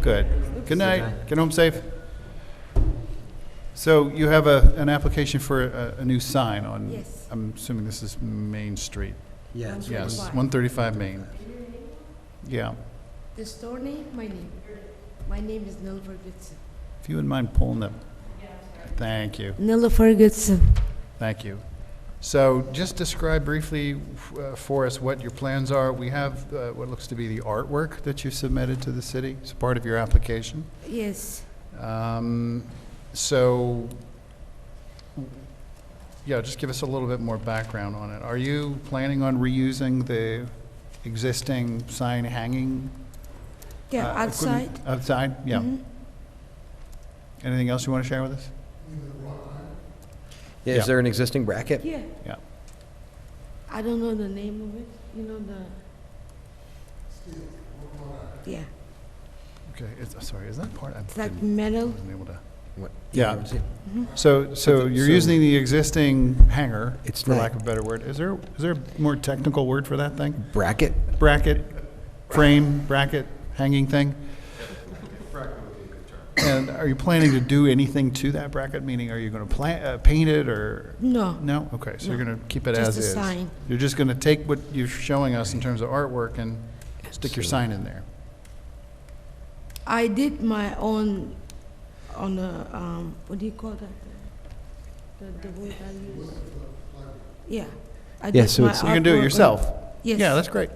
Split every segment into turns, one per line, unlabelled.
Good. Good night. Get home safe. So you have a, an application for a, a new sign on?
Yes.
I'm assuming this is Main Street.
Yes.
Yes, 135
135.
Main. Yeah.
The store name, my name. My name is Nella Ferguson.
If you wouldn't mind pulling that. Thank you.
Nella Ferguson.
Thank you. So just describe briefly uh, for us what your plans are. We have uh, what looks to be the artwork that you submitted to the city. It's part of your application.
Yes.
Um, So, yeah, just give us a little bit more background on it. Are you planning on reusing the existing sign hanging?
Yeah,
uh,
outside. Mm-hmm.
equipment? Outside, yeah. Anything else you want to share with us?
Yeah,
Yeah.
Is there an existing bracket?
Yeah.
Yeah.
I don't know the name of it. You know the. Yeah,
Okay, is, sorry, is that part? I
it's like
didn't-
metal.
wasn't able to.
What-
Yeah.
you see?
So, so
So-
you're
so-
using the existing hanger,
It's
for
not-
lack of a better word. Is there, is there a more technical word for that thing?
Bracket?
bracket, frame, bracket, hanging thing? And are you planning to do anything to that bracket? Meaning, are you going to plant, uh, paint it or?
No.
No? Okay, so you're
No.
going to keep it
Just
as
a
is?
sign.
You're just going to take what you're showing us in terms of artwork and stick your sign in there?
I did my own on the um, what do you call that? The, the word I use. Yeah. I
Yeah, so
my
it's-
So you can do
artwork
it
on-
yourself?
Yes.
Yeah, that's great.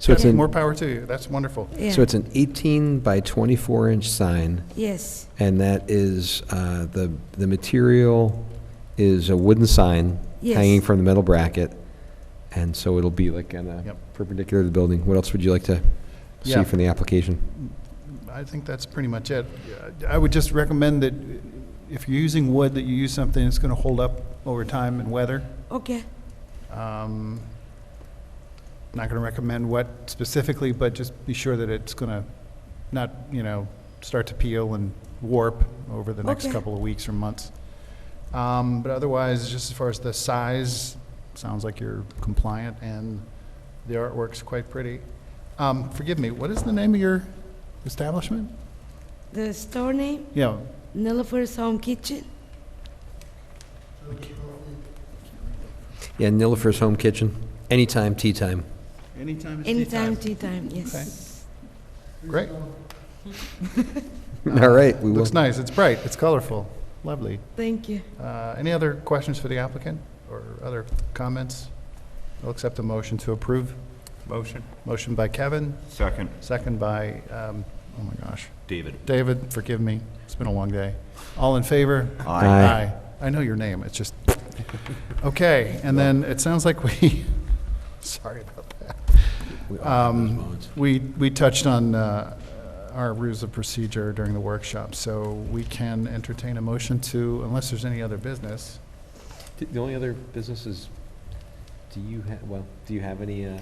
So it's
That's-
an,
More power to you. That's wonderful.
Yeah.
so it's an 18 by 24 inch sign,
yes.
and that is, uh, the, the material is a wooden sign
Yes.
hanging from the metal bracket, and so it'll be like kind of
Yep.
perpendicular to the building. What else would you like to
Yeah.
see from the application?
I think that's pretty much it. I would just recommend that if you're using wood, that you use something that's going to hold up over time and weather.
Okay.
Um, Not going to recommend what specifically, but just be sure that it's going to not, you know, start to peel and warp over the next
Okay.
couple of weeks or months. Um, But otherwise, just as far as the size, sounds like you're compliant and the artwork's quite pretty. Um, Forgive me, what is the name of your establishment?
The store name
Yeah,
Nilifer's Home Kitchen.
Yeah, Nilifer's Home Kitchen, anytime, tea time.
anytime
Anytime, tea time. Yes.
Great,
All right, we will.
Uh, looks nice, it's bright, it's colorful, lovely.
Thank you.
Uh, Any other questions for the applicant or other comments? I'll accept a motion to approve.
Motion.
Motion by Kevin,
Second.
second by, um, oh my gosh,
David.
David, forgive me, it's been a long day. All in favor?
Aye. Aye.
I know your name, it's just, okay, and then it sounds like we, sorry about that. Um, We, we touched on uh, our rules of procedure during the workshop, so we can entertain a motion to, unless there's any other business,
D- The only other business is, do you have, well, do you have any, uh,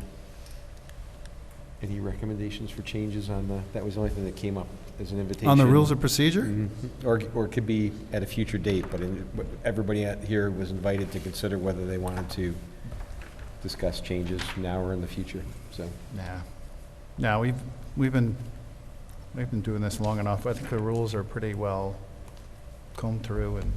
any recommendations for changes on the, that was the only thing that came up as an invitation?
On the rules of procedure?
Mhm. Or, or it could be at a future date, but in- but everybody out here was invited to consider whether they wanted to discuss changes now or in the future, so.
Nah. No, we've, we've been, we've been doing this long enough. I think the rules are pretty well combed through and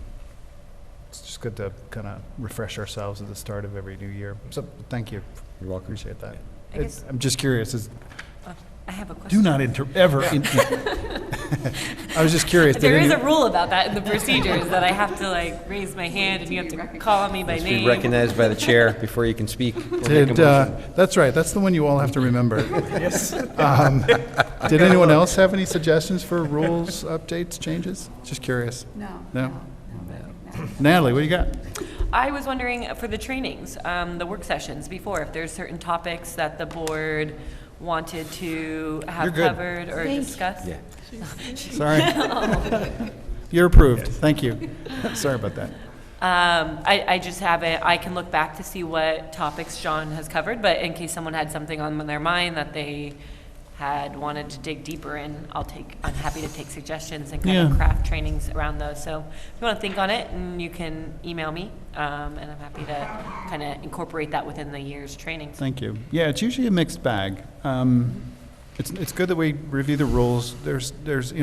it's just good to kind of refresh ourselves at the start of every new year. So, thank you.
You're welcome.
Appreciate that.
I guess-
I'm just curious, is,
I have a question.
do not inter, ever. in- I was just curious. did
There is
any-
a rule about that in the procedures, that I have to like raise my hand and you have to call on me by
Be
name.
recognized by the chair before you can speak. or make a
Did,
motion.
uh, that's right, that's the one you all have to remember. Um, Did anyone else have any suggestions for rules, updates, changes? Just curious. No. No? Natalie, what do you got?
I was wondering uh, for the trainings, um, the work sessions before, if there's certain topics that the board wanted to
You're
have
good.
covered or
Thank you.
discussed.
Yeah.
Sorry. You're approved, thank you. Sorry about that.
Um, I, I just have it, I can look back to see what topics John has covered, but in case someone had something on their mind that they had wanted to dig deeper in, I'll take, I'm happy to take suggestions and kind
Yeah.
of craft trainings around those. So if you want to think on it, and you can email me, um, and I'm happy to kind of incorporate that within the year's trainings.
Thank you. Yeah, it's usually a mixed bag. Um, It's, it's good that we review the rules. There's, there's, you